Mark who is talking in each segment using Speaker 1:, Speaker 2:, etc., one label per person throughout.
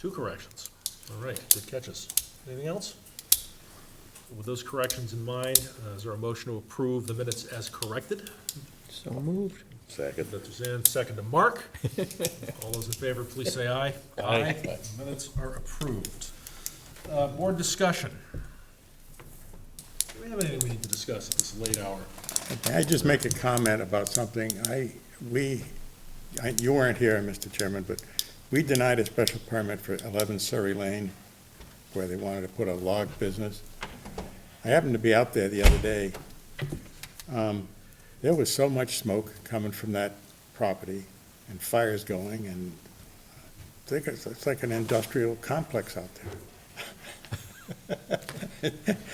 Speaker 1: Two corrections. All right, good catches. Anything else? With those corrections in mind, uh, is there a motion to approve the minutes as corrected?
Speaker 2: So moved.
Speaker 3: Second.
Speaker 1: That's Suzanne, second to Mark. All those in favor, please say aye.
Speaker 3: Aye.
Speaker 1: Minutes are approved. Uh, Board discussion. Do we have anything we need to discuss at this late hour?
Speaker 4: Can I just make a comment about something? I, we, I- you weren't here, Mr. Chairman, but we denied a special permit for 11 Surrey Lane where they wanted to put a log business. I happened to be out there the other day. Um, There was so much smoke coming from that property and fires going and I think it's, it's like an industrial complex out there.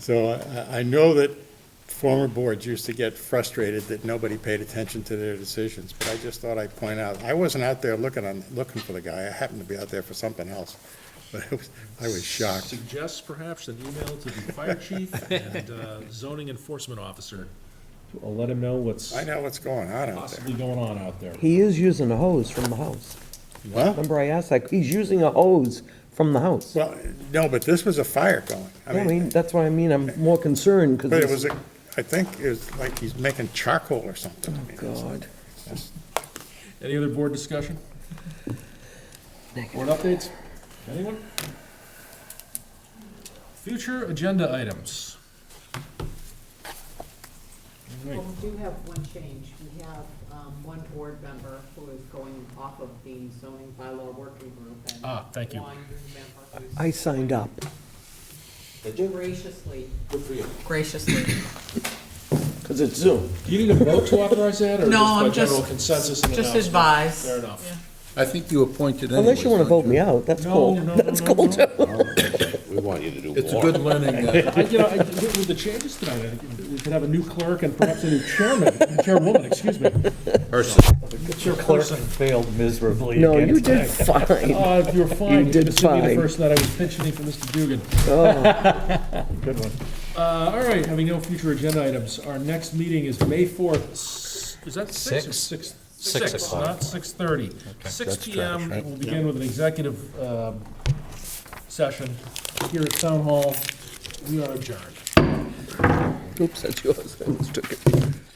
Speaker 4: So uh, I, I know that former boards used to get frustrated that nobody paid attention to their decisions, but I just thought I'd point out, I wasn't out there looking on, looking for the guy, I happened to be out there for something else, but I was, I was shocked.
Speaker 1: Suggests perhaps an email to the fire chief and uh, zoning enforcement officer. I'll let him know what's
Speaker 4: I know what's going on out there.
Speaker 1: possibly going on out there.
Speaker 2: He is using a hose from the house.
Speaker 4: Huh?
Speaker 2: Remember I asked that, he's using a hose from the house.
Speaker 4: Well, no, but this was a fire going.
Speaker 2: I mean, that's what I mean, I'm more concerned,
Speaker 4: But it
Speaker 2: because
Speaker 4: was, a- I think it was like he's making charcoal or something. I mean, it's
Speaker 2: Oh, God.
Speaker 4: just-
Speaker 1: Any other board discussion? Board updates? Anyone? Future agenda items. All right.
Speaker 5: Well, we do have one change. We have um, one board member who is going off of the zoning bylaw working group and
Speaker 1: Ah, thank you.
Speaker 5: one member who's
Speaker 2: I signed up.
Speaker 5: graciously. Graciously.
Speaker 2: Because it's Zoom.
Speaker 1: Do you need a vote to authorize that, or
Speaker 5: No,
Speaker 1: just by
Speaker 5: I'm just-
Speaker 1: general consensus and
Speaker 5: Just
Speaker 1: announcement?
Speaker 5: advise.
Speaker 1: Fair enough.
Speaker 6: I think you appointed anyways.
Speaker 2: Unless you want to vote
Speaker 6: don't
Speaker 2: me
Speaker 6: you?
Speaker 2: out, that's
Speaker 1: No,
Speaker 2: cool.
Speaker 1: no, no,
Speaker 2: That's
Speaker 1: no,
Speaker 2: cool
Speaker 1: no.
Speaker 2: too.
Speaker 3: We want you to do more.
Speaker 6: It's a good learning, uh,
Speaker 1: I, you know, I, with with the changes tonight, I think we could have a new clerk and perhaps a new chairman, chairwoman, excuse me.
Speaker 3: person.
Speaker 1: Chairperson.
Speaker 7: failed miserably
Speaker 2: No,
Speaker 7: again.
Speaker 2: you did fine.
Speaker 1: Uh, you're fine.
Speaker 2: You did
Speaker 1: This would be
Speaker 2: fine.
Speaker 1: the first night I was pensioning for Mr. Dugan.
Speaker 2: Oh.
Speaker 7: Good one.
Speaker 1: Uh, all right, having no future agenda items, our next meeting is May fourth, is that six or
Speaker 6: Six?
Speaker 1: six?
Speaker 6: Six o'clock.
Speaker 1: Not six thirty. Six
Speaker 6: that's
Speaker 1: P M,
Speaker 6: trash, right?
Speaker 1: we'll begin with an executive, um, session here at Town Hall. We are adjourned.
Speaker 2: Oops, that's yours. I mistook it.